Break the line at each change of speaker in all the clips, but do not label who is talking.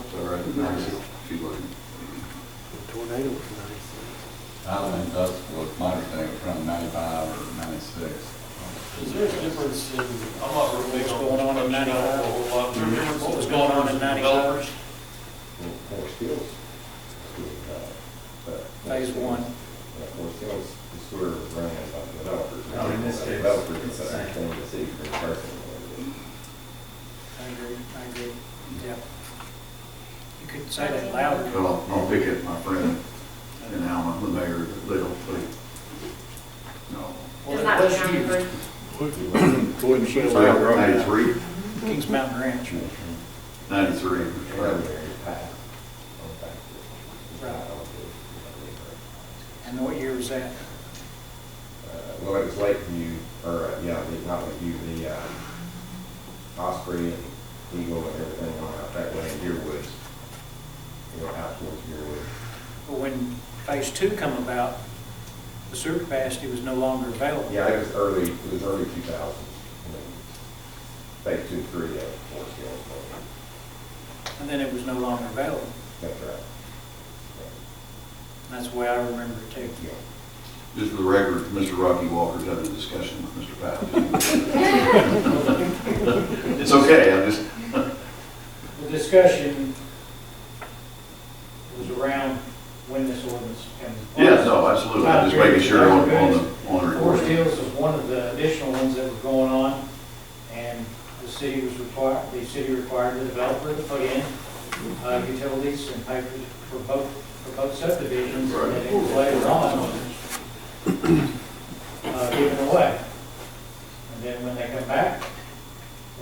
nice, she wasn't.
The tornado was nice.
I think that's what my understanding was around ninety-five or ninety-six.
Is there a difference in, I'm not real big
What's
on.
going on in
construction, I don't know a whole lot. Is there a difference
What was going on in
developers?
ninety-five?
Well, Four skills. uh,
Phase one.
Four skills, the sewer ran by the developers.
Oh, in this case,
Developers,
it's the
it's
same.
actually the city for the person.
I agree, I agree, yeah. You could say that louder.
Well, I'll pick up my friend in Alma, the mayor of Little, please. No.
It's not the county version.
Go ahead and shut
Ninety-three?
Kings Mountain Ranch.
Ninety-three.
Primary path.
Right. And what year was that?
Uh, Well, it was Lakeview, or, uh, yeah, the- not Lakeview, the uh, Osprey and Eagle and everything on out that way in Deerwood. You know, out towards Deerwood.
But When phase two come about, the sewer capacity was no longer available.
Yeah, it was early, it was early two thousands. Phase two, three, yeah, four scales. but
And then it was no longer available.
That's right.
And that's the way I remember it too.
Yeah.
Just for the record, Mr. Rocky Walker's had a discussion with Mr. Pat. It's okay, I'm just,
The discussion was around when this ordinance comes.
yeah, no, absolutely, I'm just making sure on, on the, on the
Forest
recording.
Hills is one of the additional ones that were going on, and the city was required, the city required the developer to put in uh, utilities and papers for both, for both subdivisions, and then it was later on uh, given away. And then when they come back,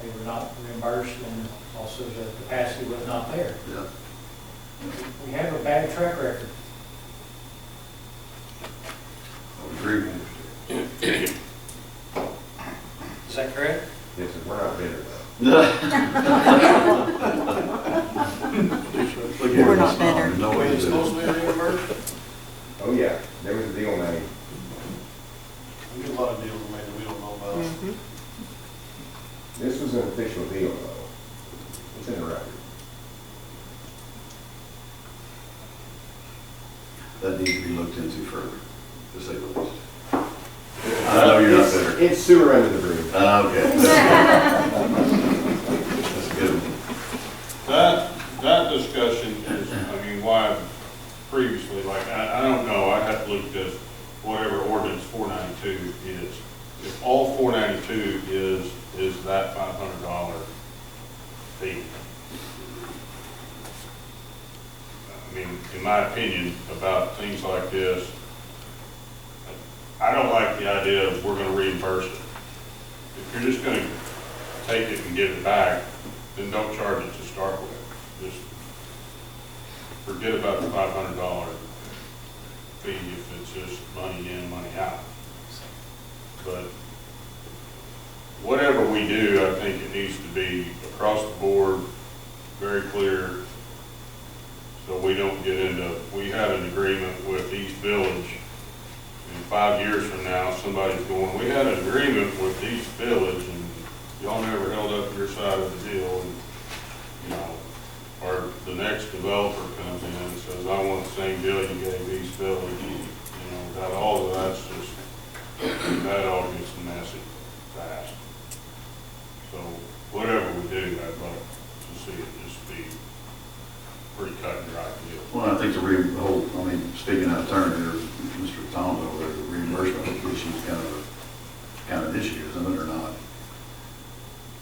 they were not reimbursed, and also the capacity was not there.
Yeah.
We have a bad track record.
I would agree with you.
Is that correct?
This is, we're not bitter though.
We're not better. No
Wait,
way
it's
to
supposed
do
to
it.
be reimbursed?
Oh, yeah, there was a deal made.
We get a lot of deals made that we don't know about.
This was an official deal though. It's in the record.
That needs to be looked into further, to say the least. I know you're not bitter.
It's sewer under the bridge.
Ah, Okay. That's good.
That, that discussion is, I mean, why previously, like, I, I don't know, I have to look at this, whatever ordinance four ninety-two is. If all four ninety-two is, is that five hundred dollar fee. I mean, in my opinion, about things like this, I don't like the idea of we're gonna reimburse it. If you're just gonna take it and give it back, then don't charge it to start with. Just forget about the five hundred dollar fee if it's just money in, money out. But whatever we do, I think it needs to be across the board, very clear, so we don't get into, we had an agreement with East Village, and five years from now, somebody's going, we had an agreement with East Village, and y'all never held up your side of the deal, and, you know, or the next developer comes in and says, I want the same deal you gave East Village, you know, without all of that's just, that all gets messy fast. So, whatever we do, I'd like to see it just be pretty cut and dry deal.
Well, I think the re, the whole, I mean, speaking out of turn here, Mr. Thomas over there, the reimbursement issue is kind of, kind of an issue, isn't it, or not?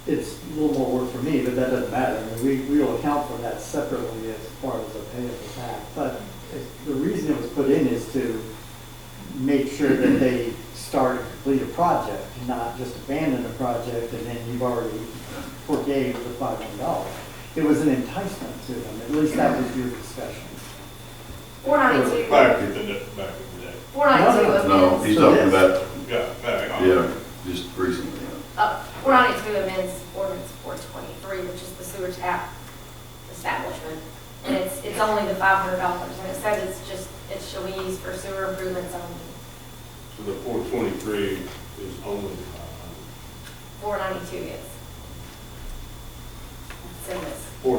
It's a little more work for me, but that doesn't matter. I mean, we, we'll account for that separately as far as a payable tax. But it- the reason it was put in is to make sure that they start and complete a project, not just abandon a project and then you've already forgave the five hundred dollars. It was an enticement to them, at least that was your discussion.
Four ninety-two,
Back in the, back in the day,
four ninety-two amends.
No, he's talking about,
yeah, back on.
yeah, just recently, yeah.
Uh, four ninety-two amends ordinance four twenty-three, which is the sewer tap establishment. And it's, it's only the five hundred dollars, and it says it's just, it shall be used for sewer improvements only.
So the four twenty-three is only uh, five hundred.
Four ninety-two is. It's in this.